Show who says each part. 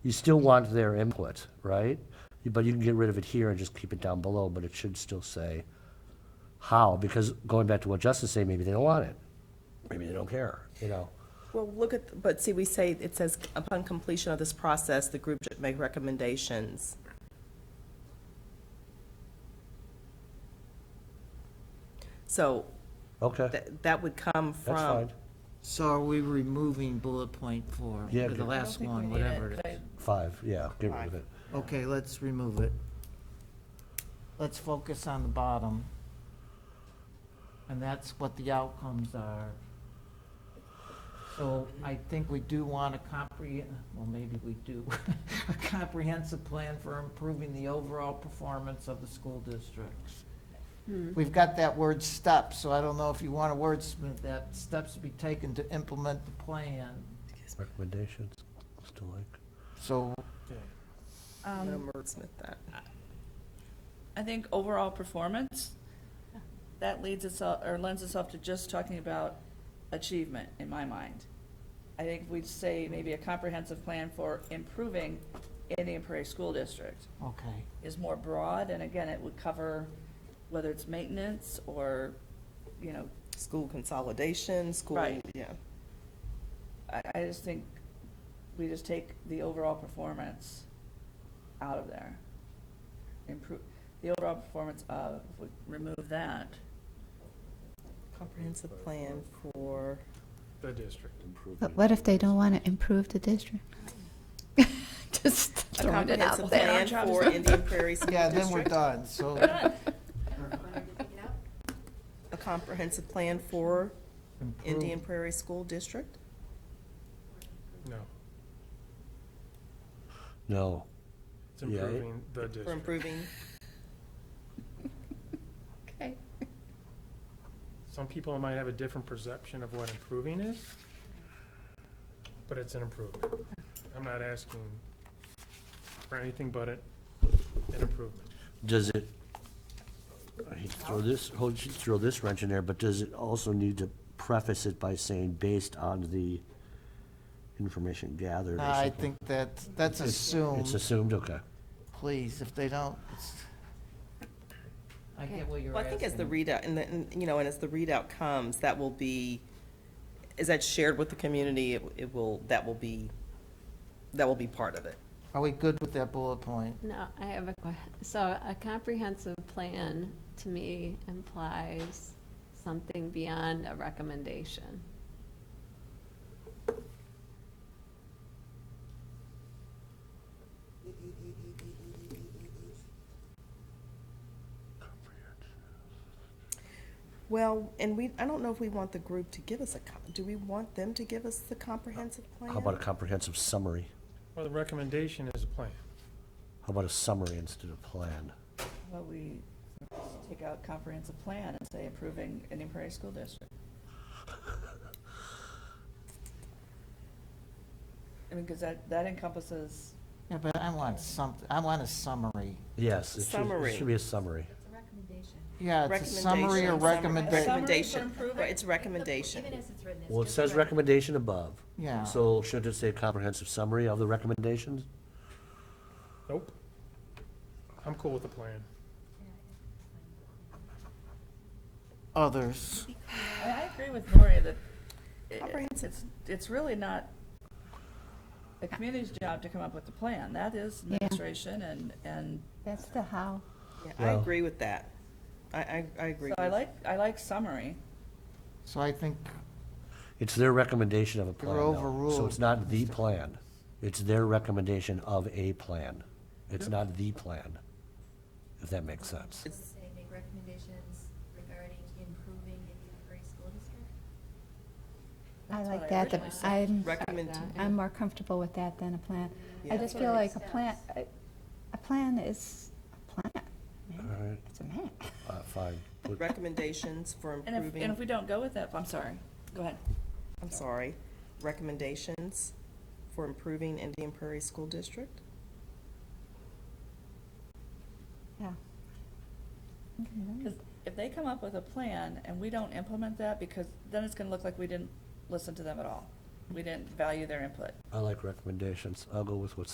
Speaker 1: You still want their input, right? But you can get rid of it here and just keep it down below, but it should still say how, because going back to what Justin's saying, maybe they don't want it. Maybe they don't care, you know?
Speaker 2: Well, look at, but see, we say, it says, upon completion of this process, the group should make recommendations. So
Speaker 1: Okay,
Speaker 2: that, that would come from.
Speaker 1: that's fine,
Speaker 3: So are we removing bullet point four,
Speaker 1: Yeah,
Speaker 3: or the
Speaker 1: good.
Speaker 3: last one, whatever it is?
Speaker 1: five, yeah, get rid of it.
Speaker 3: Okay, let's remove it. Let's focus on the bottom. And that's what the outcomes are. So I think we do want a comprehend, well, maybe we do, a comprehensive plan for improving the overall performance of the school districts. We've got that word steps, so I don't know if you want a wordsmith that steps to be taken to implement the plan.
Speaker 1: Recommendations, still like.
Speaker 3: So
Speaker 2: I'm
Speaker 4: Um,
Speaker 2: gonna wordsmith that.
Speaker 4: I think overall performance, that leads itself, or lends itself to just talking about achievement, in my mind. I think we'd say maybe a comprehensive plan for improving Indian Prairie School District
Speaker 3: Okay,
Speaker 4: is more broad, and again, it would cover whether it's maintenance or, you know,
Speaker 2: School consolidation, school,
Speaker 4: Right.
Speaker 2: yeah.
Speaker 4: I, I just think we just take the overall performance out of there. Improve, the overall performance of, would remove that.
Speaker 2: Comprehensive plan for,
Speaker 5: The district.
Speaker 6: But what if they don't want to improve the district? Just
Speaker 2: a
Speaker 6: throwing it
Speaker 2: comprehensive
Speaker 6: out there.
Speaker 2: plan for Indian Prairie School
Speaker 3: yeah, then we're
Speaker 2: District.
Speaker 3: done, so.
Speaker 2: A comprehensive plan for
Speaker 3: improve-
Speaker 2: Indian Prairie School District?
Speaker 5: No,
Speaker 1: No,
Speaker 5: it's
Speaker 1: Yeah, it-
Speaker 5: improving the
Speaker 2: For
Speaker 5: district.
Speaker 2: improving,
Speaker 6: Okay.
Speaker 5: Some people might have a different perception of what improving is, but it's an improvement. I'm not asking for anything but it, an improvement.
Speaker 1: does it, I hate to throw this, hold- throw this wrench in there, but does it also need to preface it by saying based on the information gathered or
Speaker 3: I
Speaker 1: something?
Speaker 3: think that, that's
Speaker 1: It's- It's
Speaker 3: assumed,
Speaker 1: assumed, okay.
Speaker 3: please, if they don't. it's- I get what you're
Speaker 2: well, I think as the
Speaker 3: asking.
Speaker 2: readout, and the, and, you know, and as the readout comes, that will be, is that shared with the community? It- It will, that will be, that will be part of it.
Speaker 3: Are we good with that bullet point?
Speaker 7: No, I have a question. So a comprehensive plan, to me, implies something beyond a recommendation.
Speaker 2: Well, and we, I don't know if we want the group to give us a, co- do we want them to give us the comprehensive plan?
Speaker 1: How about a comprehensive summary?
Speaker 5: Well, the recommendation is a plan.
Speaker 1: How about a summary instead of plan?
Speaker 4: Well, we take out comprehensive plan and say approving Indian Prairie School District. I mean, because that, that encompasses,
Speaker 3: Yeah, but I want something, I want a summary.
Speaker 1: Yes, it should, it
Speaker 2: Summary.
Speaker 1: should be a summary.
Speaker 3: Yeah, it's a summary or recommendation.
Speaker 4: Summary.
Speaker 2: Recommendation,
Speaker 4: improvement.
Speaker 2: Right, it's recommendation.
Speaker 1: Well, it says recommendation above.
Speaker 3: Yeah,
Speaker 1: So should it say comprehensive summary of the recommendations?
Speaker 5: Nope. I'm cool with the plan.
Speaker 3: others.
Speaker 4: I, I agree with Lori that i- i-
Speaker 2: Comprehensive.
Speaker 4: it's, it's really not the community's job to come up with the plan. That is
Speaker 6: Yeah.
Speaker 4: administration and, and,
Speaker 6: That's the how.
Speaker 2: Yeah, I
Speaker 1: Well-
Speaker 2: agree with that. I, I, I agree.
Speaker 4: so I
Speaker 2: with-
Speaker 4: like, I like summary.
Speaker 3: So I think,
Speaker 1: It's their recommendation of a plan, though. So it's
Speaker 3: overruled,
Speaker 1: not the plan. It's their recommendation of a plan. It's not the plan, if that makes sense.
Speaker 8: Does it say make recommendations regarding improving Indian Prairie School District?
Speaker 6: I
Speaker 4: That's
Speaker 6: like
Speaker 4: what I
Speaker 6: that. the-
Speaker 4: originally said.
Speaker 6: I'm,
Speaker 2: Recommend,
Speaker 6: I'm more comfortable with that than a plan.
Speaker 2: Yeah.
Speaker 6: I just feel like a plan, a- a plan is a plan.
Speaker 1: All
Speaker 6: man.
Speaker 1: right,
Speaker 6: It's a map.
Speaker 1: uh, fine. Put-
Speaker 2: recommendations for
Speaker 4: And if, and if we
Speaker 2: improving,
Speaker 4: don't go with that, I'm sorry, go ahead.
Speaker 2: I'm sorry, recommendations for improving Indian Prairie School District?
Speaker 6: Yeah. Mm-hmm.
Speaker 4: Because if they come up with a plan and we don't implement that, because then it's gonna look like we didn't listen to them at all. We didn't value their input.
Speaker 1: I like recommendations. I'll go with what's